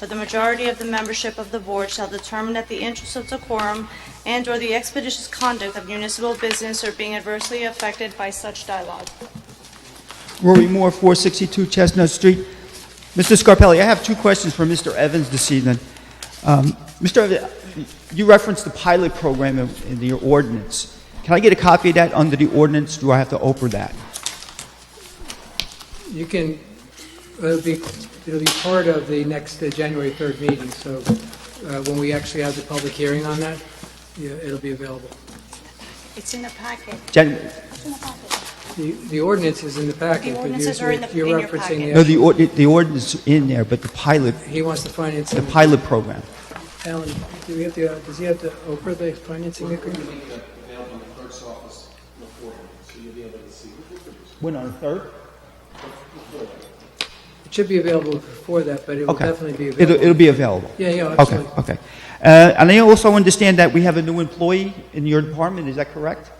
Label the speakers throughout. Speaker 1: but the majority of the membership of the board shall determine that the interests of decorum and/or the expeditious conduct of municipal business are being adversely affected by such dialogue.
Speaker 2: Rory Moore, 462 Chestnut Street. Mr. Scarpelli, I have two questions for Mr. Evans this evening. Um, Mr. Evans, you referenced the pilot program in in your ordinance. Can I get a copy of that under the ordinance? Do I have to open that?
Speaker 3: You can, it'll be, it'll be part of the next uh, January 3rd meeting, so uh, when we actually have the public hearing on that, yeah, it'll be available.
Speaker 1: It's in the packet.
Speaker 2: Jan-
Speaker 3: The the ordinance is in the packet, but you're
Speaker 1: ordinances are in the-
Speaker 3: you're
Speaker 1: in your packet.
Speaker 3: referencing
Speaker 2: No,
Speaker 3: the,
Speaker 2: the ord- the ordinance is in there, but the pilot,
Speaker 3: he wants the
Speaker 2: the
Speaker 3: financing.
Speaker 2: pilot program.
Speaker 3: Alan, do we have to, uh, does he have to offer the financing agreement?
Speaker 4: available in the clerk's office before, so you'll be able to see.
Speaker 2: When, on the 3rd?
Speaker 3: It should be available before that, but it will
Speaker 2: Okay.
Speaker 3: definitely be
Speaker 2: It'll it'll
Speaker 3: available.
Speaker 2: be available?
Speaker 3: Yeah, yeah,
Speaker 2: Okay,
Speaker 3: absolutely.
Speaker 2: okay. Uh, And I also understand that we have a new employee in your department, is that correct?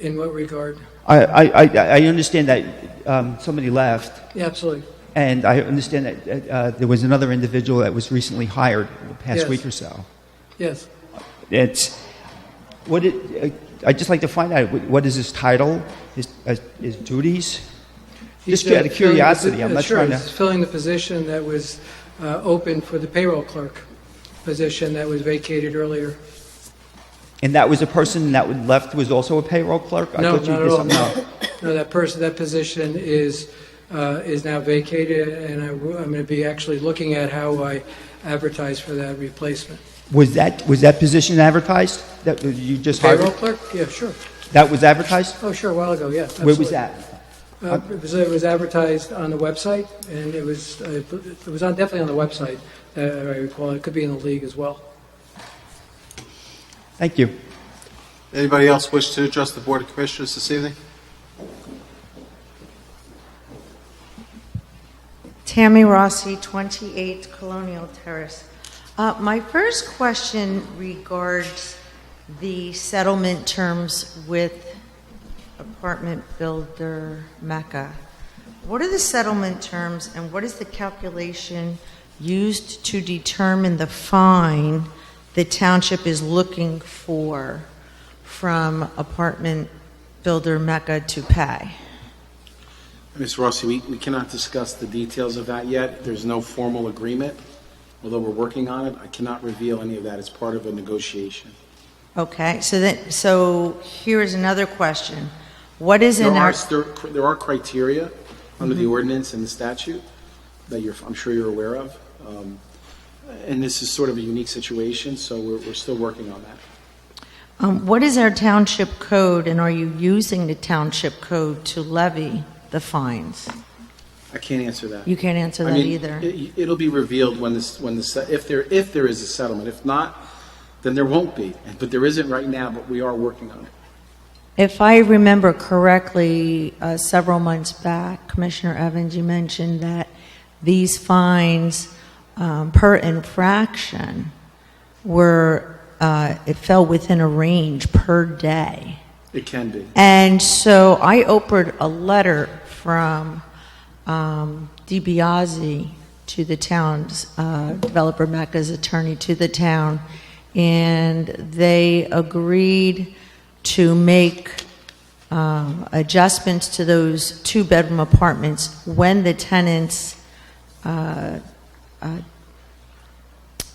Speaker 3: In what regard?
Speaker 2: I, I, I- I understand that um, somebody left,
Speaker 3: Yeah, absolutely.
Speaker 2: and I understand that uh, there was another individual that was recently hired in the past
Speaker 3: Yes.
Speaker 2: week or so.
Speaker 3: Yes.
Speaker 2: It's what it, uh, I'd just like to find out what, what is his title, his, uh, his duties.
Speaker 3: He's,
Speaker 2: Just out
Speaker 3: uh,
Speaker 2: of curiosity, I'm
Speaker 3: filling the
Speaker 2: not
Speaker 3: posi- uh,
Speaker 2: trying to-
Speaker 3: Sure, he's filling the position that was uh, open for the payroll clerk position that was vacated earlier.
Speaker 2: And that was a person that would- left was also a payroll clerk. I
Speaker 3: No,
Speaker 2: thought you
Speaker 3: not
Speaker 2: did
Speaker 3: at all.
Speaker 2: something else.
Speaker 3: No, No, that person, that position is, uh, is now vacated, and I w- I'm going to be actually looking at how I advertise for that replacement.
Speaker 2: Was that was that position advertised? That uh, you just hired?
Speaker 3: Payroll clerk? Yeah, sure.
Speaker 2: That was advertised.
Speaker 3: Oh, sure, a while ago, yeah.
Speaker 2: Where was
Speaker 3: absolutely.
Speaker 2: that?
Speaker 3: Uh, It was- it was advertised on the website, and it was, uh, it was on- definitely on the website, uh, I recall. It could be in the league as well.
Speaker 2: Thank you.
Speaker 4: Anybody else wish to address the Board of Commissioners this evening?
Speaker 5: Tammy Rossi, 28 Colonial Terrace. Uh, My first question regards the settlement terms with apartment builder Mecca. What are the settlement terms, and what is the calculation used to determine the fine the township is looking for from apartment builder Mecca to pay?
Speaker 6: Ms. Rossi, we we cannot discuss the details of that yet. There's no formal agreement, although we're working on it. I cannot reveal any of that. It's part of a negotiation.
Speaker 5: Okay, so that, so here is another question. What is
Speaker 6: There
Speaker 5: in
Speaker 6: are,
Speaker 5: our, Mm-hmm.
Speaker 6: there there are criteria under the ordinance and the statute that you're, I'm sure you're aware of. Um, And this is sort of a unique situation, so we're we're still working on that.
Speaker 5: um, what is our township code, and are you using the township code to levy the fines?
Speaker 6: I can't answer that.
Speaker 5: You can't answer
Speaker 6: I
Speaker 5: that
Speaker 6: mean,
Speaker 5: either.
Speaker 6: it- It'll be revealed when this, when this, if there, if there is a settlement. If not, then there won't be. But there isn't right now, but we are working on it.
Speaker 5: If I remember correctly, uh, several months back, Commissioner Evans, you mentioned that these fines um, per infraction were, uh, it fell within a range per day.
Speaker 6: It can be.
Speaker 5: And so I opened a letter from um, DiBiase to the town's uh, developer Mecca's attorney to the town, and they agreed to make um, adjustments to those two-bedroom apartments when the tenants' uh, uh,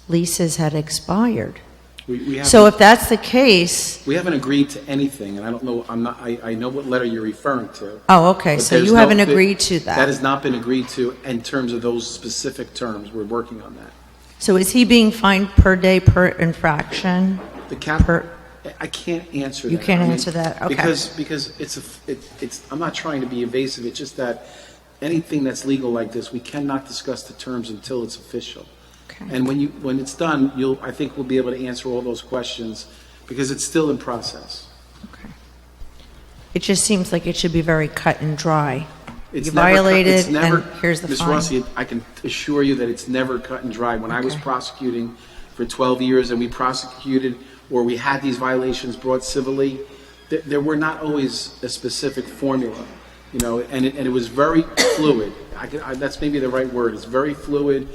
Speaker 5: leases had expired.
Speaker 6: We, we haven't,
Speaker 5: So if that's the case,
Speaker 6: we haven't agreed to anything, and I don't know. I'm not. I, I know what letter you're referring to.
Speaker 5: oh, okay,
Speaker 6: but
Speaker 5: so
Speaker 6: there's
Speaker 5: you
Speaker 6: no
Speaker 5: haven't
Speaker 6: fi-
Speaker 5: agreed to that.
Speaker 6: That has not been agreed to in terms of those specific terms. We're working on that.
Speaker 5: So is he being fined per day per infraction?
Speaker 6: The cap.
Speaker 5: Per-
Speaker 6: I can't answer.
Speaker 5: You
Speaker 6: that.
Speaker 5: can't
Speaker 6: I mean,
Speaker 5: answer that, okay.
Speaker 6: Because because it's a f- it, it's. I'm not trying to be evasive. It's just that anything that's legal like this, we cannot discuss the terms until it's official.
Speaker 5: Okay.
Speaker 6: And when you when it's done, you'll. I think we'll be able to answer all those questions because it's still in process.
Speaker 5: It just seems like it should be very cut and dry.
Speaker 6: It's
Speaker 5: You
Speaker 6: never cut-
Speaker 5: violated,
Speaker 6: it's never-
Speaker 5: and here's the
Speaker 6: Ms.
Speaker 5: fine.
Speaker 6: Rossi, I can assure you that it's never cut and dry. When I was
Speaker 5: Okay.
Speaker 6: prosecuting for 12 years and we prosecuted or we had these violations brought civilly, th- there were not always a specific formula, you know, and it, and it was very fluid. I, can, I, that's maybe the right word. It's very fluid.